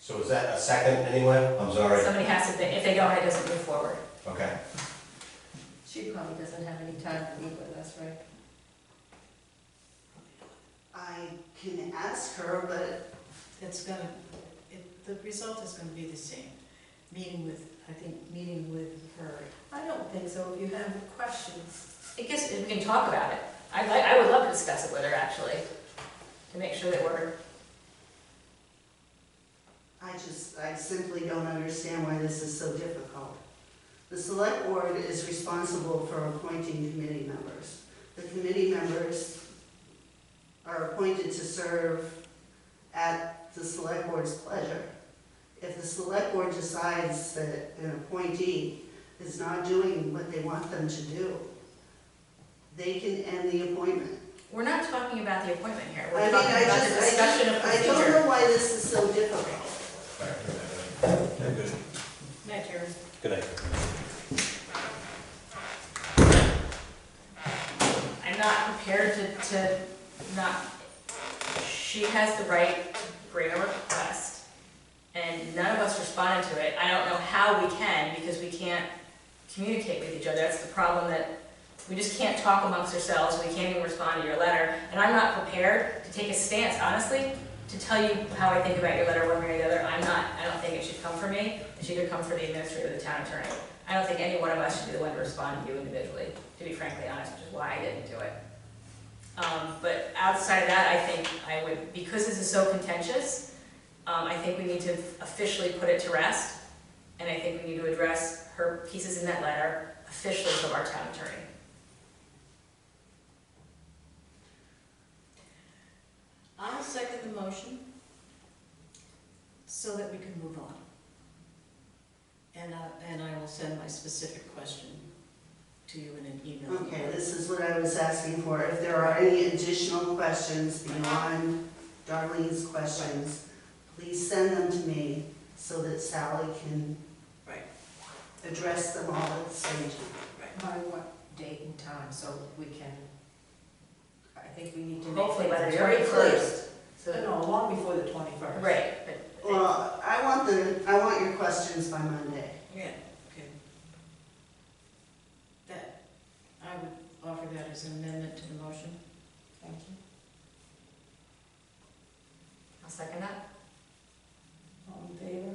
So is that a second anywhere? I'm sorry. Somebody has to, if they don't, it doesn't move forward. Okay. She probably doesn't have any time to meet with us, right? I can ask her, but It's gonna, it, the result is gonna be the same. Meeting with, I think, meeting with her. I don't think so, if you have questions. I guess we can talk about it. I'd like, I would love to discuss it with her, actually, to make sure that we're, I just, I simply don't understand why this is so difficult. The select board is responsible for appointing committee members. The committee members are appointed to serve at the select board's pleasure. If the select board decides that an appointee is not doing what they want them to do, they can end the appointment. we're not talking about the appointment here. I We're mean, talking I about the just, I discussion of just, I don't procedure. know why this is so difficult. Good. Matt, you're- Good night. I'm not prepared to, to not, she has the right to bring a request, and none of us responded to it. I don't know how we can, because we can't communicate with each other. That's the problem that, we just can't talk amongst ourselves, we can't even respond to your letter. And I'm not prepared to take a stance, honestly, to tell you how I think about your letter one way or the other. I'm not, I don't think it should come from me, it should either come from the administrator or the town attorney. I don't think any one of us should be the one to respond to you individually, to be frankly honest, which is why I didn't do it. Um, but outside of that, I think I would, because this is so contentious, um, I think we need to officially put it to rest. And I think we need to address her pieces in that letter officially from our town attorney. I'll second the motion so that we can move on. And I, and I will send my specific question to you in an email. Okay, this is what I was asking for, if there are any additional questions beyond Darlene's questions, please send them to me so that Sally can Right. address them all at the same time. By what date and time, so we can, I think we need to make. Hopefully by the things very clear. first. No, So, No, long before the twenty-first. right, but Well, I want the, I want your questions by Monday. Yeah, okay. That, I would offer that as an amendment to the motion. Thank you. I'll second that. All in favor?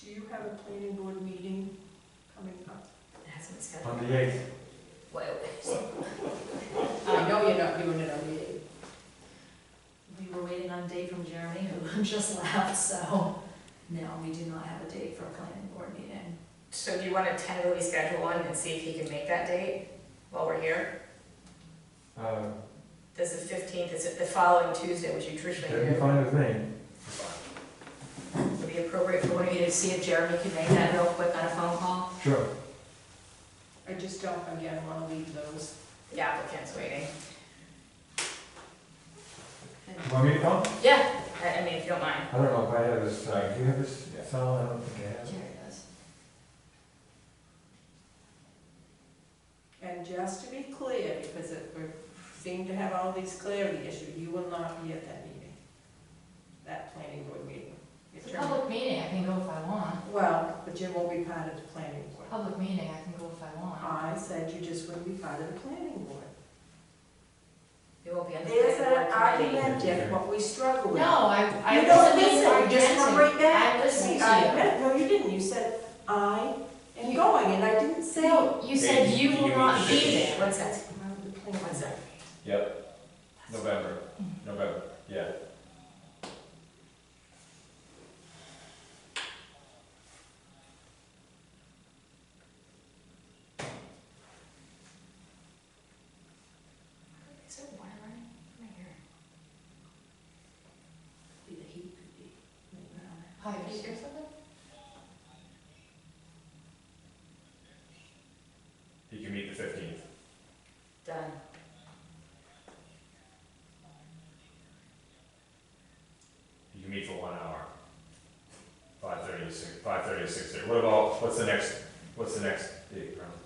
Do you have a planning board meeting coming up? It hasn't been On scheduled. the eighth, Wait, wait. I know you're not doing it on the eighth. We were waiting on a date from Jeremy, who just left, so no, we do not have a date for a planning board meeting. So do you want to tentatively schedule one and see if he can make that date while we're here? uh, Does the fifteenth, is it the following Tuesday, which you traditionally do? it'd be fine with me. Would it be appropriate for one of you to see if Jeremy can make that real quick on a phone call? Sure. I just don't, again, wanna leave those. The applicant's waiting. You Want me to come? Yeah, I, I mean, if you don't mind. I don't know if I have this, uh, do you have this, Sal? I don't think I have. Jerry does. And just to be clear, because it, we seem to have all these clarity issues, you will not be at that meeting. That planning board meeting. It's a public meeting, I can go if I want. Well, but Jim will be part of the planning board. Public meeting, I can go if I want. I said you just wouldn't be part of the planning board. We won't be on the There's planning that board committee. argument, Dick, what we struggle with. No, I, I You don't wasn't even listen, you just arguing. come right back. I listened See, I to meant- No, you didn't, you said, I am You- going, and I didn't say. you. No, you said you will not be there. One sec, I'm the planning one sec. November, November, yeah. Is it water running? Right here. board. Be the heat, could be. Hi, Did you hear something? You can meet the fifteenth. Done. You can meet for one hour. Five thirty to six, five thirty to six thirty. What about, what's the next, what's the next date, Brown?